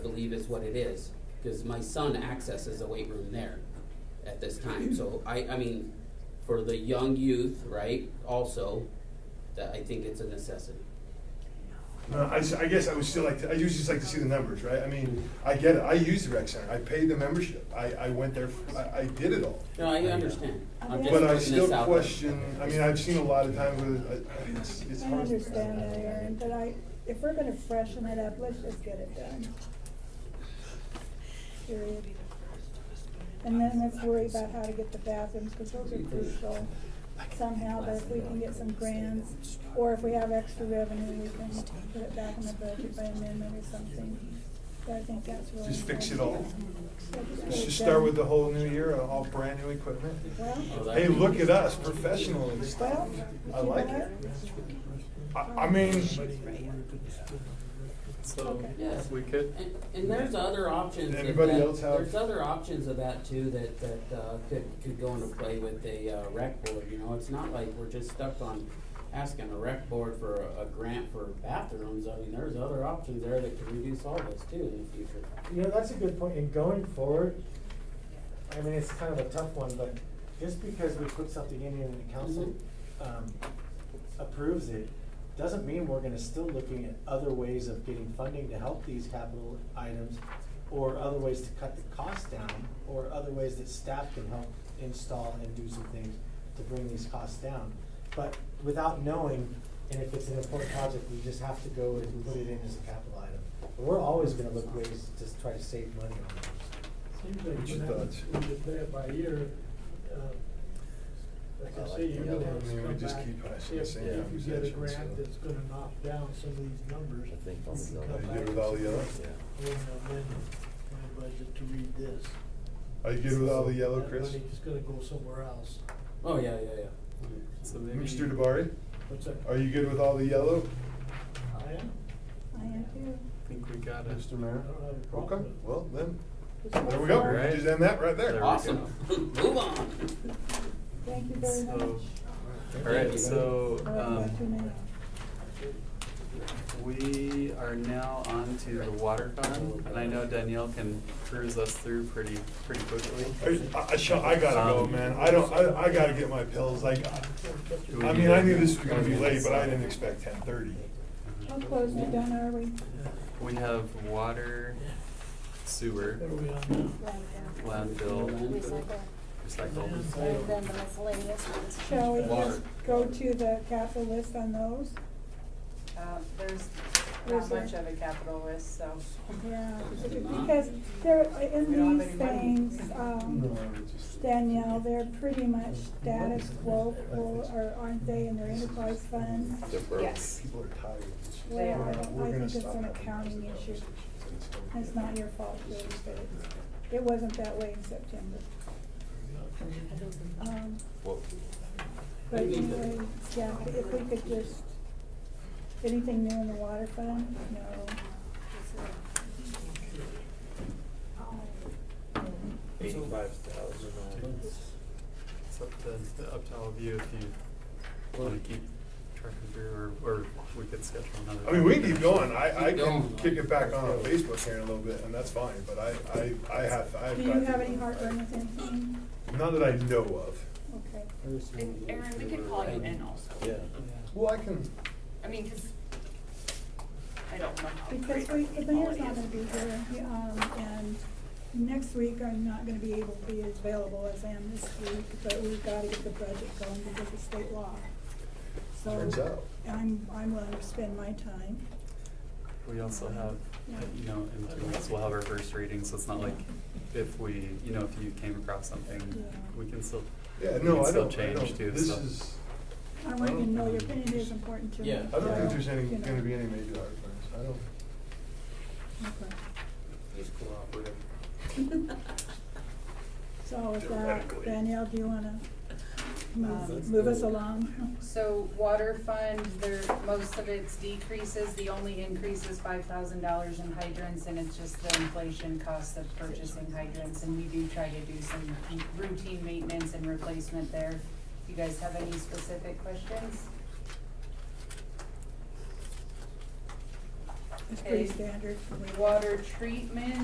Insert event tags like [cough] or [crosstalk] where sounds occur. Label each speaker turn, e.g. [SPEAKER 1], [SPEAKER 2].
[SPEAKER 1] believe is what it is, because my son accesses the weight room there at this time. So I, I mean, for the young youth, right, also, that I think it's a necessity.
[SPEAKER 2] No, Uh, I, s- I guess I would still like to, I usually just like to see the numbers, right? I mean, I get it, I use the rec center, I paid the membership, I, I went there, I, I did it all.
[SPEAKER 1] No, I understand. I'm just
[SPEAKER 2] But I
[SPEAKER 1] putting
[SPEAKER 2] still
[SPEAKER 1] this out there.
[SPEAKER 2] question, I mean, I've seen a lot of times where, it- I- it's, it's
[SPEAKER 3] I
[SPEAKER 2] hard.
[SPEAKER 3] understand that, Aaron, but I, if we're gonna freshen it up, let's just get it done. Period. And then let's worry about how to get the bathrooms, because those are crucial somehow, but if we can get some grants, or if we have extra revenue, we can put it back in the budget by amendment or something. But I think that's really.
[SPEAKER 2] Just fix it all.
[SPEAKER 3] important. Let's just get
[SPEAKER 2] Let's
[SPEAKER 3] it
[SPEAKER 2] just start
[SPEAKER 3] done.
[SPEAKER 2] with the whole new year, uh, all brand new equipment.
[SPEAKER 1] Oh,
[SPEAKER 3] Well,
[SPEAKER 1] that-
[SPEAKER 2] Hey, look at us, professional and stuff.
[SPEAKER 3] well.
[SPEAKER 2] I
[SPEAKER 3] you know
[SPEAKER 2] like
[SPEAKER 3] what?
[SPEAKER 2] it. I, I mean,
[SPEAKER 4] So,
[SPEAKER 3] Okay.
[SPEAKER 1] Yes.
[SPEAKER 4] if we could,
[SPEAKER 1] And, and there's other options.
[SPEAKER 2] Did
[SPEAKER 1] of
[SPEAKER 2] everybody
[SPEAKER 1] that-
[SPEAKER 2] else have-
[SPEAKER 1] There's other options of that too, that, that, uh, could, could go into play with the, uh, rec board, you know, it's not like we're just stuck on asking a rec board for a, a grant for bathrooms, I mean, there's other options there that could reduce all this too in the future.
[SPEAKER 5] You know, that's a good point, and going forward, I mean, it's kind of a tough one, but just because we put something in here and the council, um, approves it, doesn't mean we're gonna still looking at other ways of getting funding to help these capital items, or other ways to cut the cost down, or other ways that staff can help install and do some things to bring these costs down. But without knowing, and if it's an important project, we just have to go and put it in as a capital item. But We're always gonna look ways to try to save money on those.
[SPEAKER 6] Seems
[SPEAKER 2] What's
[SPEAKER 6] like you
[SPEAKER 2] your thoughts?
[SPEAKER 6] have to play it by ear. uh, Like
[SPEAKER 5] I
[SPEAKER 6] I
[SPEAKER 5] like
[SPEAKER 6] say,
[SPEAKER 5] the
[SPEAKER 6] you're
[SPEAKER 5] other
[SPEAKER 6] gonna
[SPEAKER 5] one.
[SPEAKER 6] have
[SPEAKER 2] I
[SPEAKER 6] to
[SPEAKER 2] mean, we
[SPEAKER 6] come
[SPEAKER 2] just
[SPEAKER 6] back
[SPEAKER 2] keep
[SPEAKER 6] if,
[SPEAKER 2] asking the
[SPEAKER 6] if
[SPEAKER 2] same
[SPEAKER 6] you get a
[SPEAKER 2] conversation,
[SPEAKER 6] grant
[SPEAKER 2] so.
[SPEAKER 6] that's gonna knock down some of these numbers.
[SPEAKER 7] I think
[SPEAKER 6] you
[SPEAKER 7] probably
[SPEAKER 6] can
[SPEAKER 7] the
[SPEAKER 2] Are you
[SPEAKER 6] come back
[SPEAKER 7] other one.
[SPEAKER 2] good with all the yellow?
[SPEAKER 6] and amend my budget to read this.
[SPEAKER 2] Are you good with all the yellow,
[SPEAKER 6] That
[SPEAKER 2] Chris?
[SPEAKER 6] money's gonna go somewhere else.
[SPEAKER 1] Oh, yeah, yeah, yeah.
[SPEAKER 4] so maybe.
[SPEAKER 2] Mr. Debari,
[SPEAKER 6] What's that?
[SPEAKER 2] are you good with all the yellow?
[SPEAKER 6] I am.
[SPEAKER 3] I am too.
[SPEAKER 4] I think we got it.
[SPEAKER 2] Mr.
[SPEAKER 6] I
[SPEAKER 2] Mayor?
[SPEAKER 6] don't have a problem.
[SPEAKER 2] Okay,
[SPEAKER 6] with it.
[SPEAKER 2] well, then, there we go,
[SPEAKER 4] All right.
[SPEAKER 2] just end that right there.
[SPEAKER 4] There we go.
[SPEAKER 1] Awesome, [laughs]
[SPEAKER 3] [laughs]
[SPEAKER 1] move on. [laughs]
[SPEAKER 3] Thank you very much.
[SPEAKER 4] So, all right, so,
[SPEAKER 3] We're only about two
[SPEAKER 4] um,
[SPEAKER 3] minutes.
[SPEAKER 4] we are now on to the water fund, and I know Danielle can cruise us through pretty, pretty quickly.
[SPEAKER 2] I, I, shall- I gotta go,
[SPEAKER 4] Um,
[SPEAKER 2] man. I don't, I, I gotta get my pills. Like, I
[SPEAKER 4] Do we
[SPEAKER 2] mean,
[SPEAKER 4] need
[SPEAKER 2] I
[SPEAKER 4] to-
[SPEAKER 2] knew this was gonna be late, but I didn't expect ten thirty.
[SPEAKER 3] How close are done are we?
[SPEAKER 4] We have water, sewer,
[SPEAKER 6] What are we on now?
[SPEAKER 4] landfill, recycle.
[SPEAKER 6] Recycle.
[SPEAKER 3] Shall we
[SPEAKER 4] Water.
[SPEAKER 3] just go to the capital list on those?
[SPEAKER 8] Uh, There's
[SPEAKER 3] There's
[SPEAKER 8] not
[SPEAKER 3] a-
[SPEAKER 8] much of a capital risk, so.
[SPEAKER 3] Yeah, because they're,
[SPEAKER 8] We
[SPEAKER 3] in
[SPEAKER 8] don't have
[SPEAKER 3] these
[SPEAKER 8] any money.
[SPEAKER 3] things, um, Danielle, they're pretty much status quo, or or aren't they, in their enterprise fund?
[SPEAKER 8] Yes.
[SPEAKER 2] People are tired.
[SPEAKER 8] They
[SPEAKER 2] We're
[SPEAKER 8] are.
[SPEAKER 2] gonna-
[SPEAKER 8] I
[SPEAKER 3] think
[SPEAKER 2] we're gonna
[SPEAKER 3] it's
[SPEAKER 2] stop
[SPEAKER 3] an
[SPEAKER 2] having
[SPEAKER 3] accounting
[SPEAKER 2] those
[SPEAKER 3] issue.
[SPEAKER 2] conversations.
[SPEAKER 3] It's not your fault, really, but it's- it wasn't that way in September. Um,
[SPEAKER 7] Well,
[SPEAKER 3] But anyway, yeah, if we could just, anything new in the water fund? No.
[SPEAKER 7] eighty-five thousand on
[SPEAKER 4] It's up to, up to all of you if you wanna keep track of your, or, or we could schedule another.
[SPEAKER 2] I mean, we can keep going. I, I
[SPEAKER 1] Keep
[SPEAKER 2] can
[SPEAKER 1] going.
[SPEAKER 2] kick it back on on Facebook here in a little bit, and that's fine, but I, I, I have, I have.
[SPEAKER 3] Do you have any heartburn with anything?
[SPEAKER 2] Not that I know of.
[SPEAKER 3] Okay.
[SPEAKER 8] And Aaron, we could call you in also.
[SPEAKER 7] yeah.
[SPEAKER 2] Well, I can,
[SPEAKER 8] I mean, because I don't know how
[SPEAKER 3] Because
[SPEAKER 8] great
[SPEAKER 3] we,
[SPEAKER 8] our
[SPEAKER 3] the mayor's
[SPEAKER 8] quality
[SPEAKER 3] not
[SPEAKER 8] is.
[SPEAKER 3] gonna be here, he- um, and next week I'm not gonna be able to be as available as I am this week, but we've gotta get the budget going because of state law. So
[SPEAKER 2] turns out.
[SPEAKER 3] I'm, I'm willing to spend my time.
[SPEAKER 4] We also have, uh, you know, in two weeks, we'll have our first reading, so it's not like if we, you know, if you came across something,
[SPEAKER 3] Yeah.
[SPEAKER 4] we can still,
[SPEAKER 2] Yeah,
[SPEAKER 4] We
[SPEAKER 2] no,
[SPEAKER 4] can
[SPEAKER 2] I
[SPEAKER 4] still
[SPEAKER 2] don't, I
[SPEAKER 4] change
[SPEAKER 2] don't,
[SPEAKER 4] too,
[SPEAKER 2] this
[SPEAKER 4] so.
[SPEAKER 2] is,
[SPEAKER 3] I want you to know your opinion is important to me.
[SPEAKER 1] Yeah.
[SPEAKER 2] I don't think
[SPEAKER 3] so,
[SPEAKER 2] there's any,
[SPEAKER 3] you know.
[SPEAKER 2] gonna be any major heartburns. I don't.
[SPEAKER 3] Okay.
[SPEAKER 1] Just cooperative.
[SPEAKER 3] [laughs]
[SPEAKER 8] [laughs]
[SPEAKER 3] So with that,
[SPEAKER 2] Theoretically.
[SPEAKER 3] Danielle, do you wanna move,
[SPEAKER 8] Um,
[SPEAKER 3] move us along?
[SPEAKER 8] So water fund, there, most of its decreases, the only increase is five thousand dollars in hydrants, and it's just the inflation cost of purchasing hydrants, and we do try to do some routine maintenance and replacement there. You guys have any specific questions?
[SPEAKER 3] It's pretty
[SPEAKER 8] Okay.
[SPEAKER 3] standard.
[SPEAKER 8] Water treatment,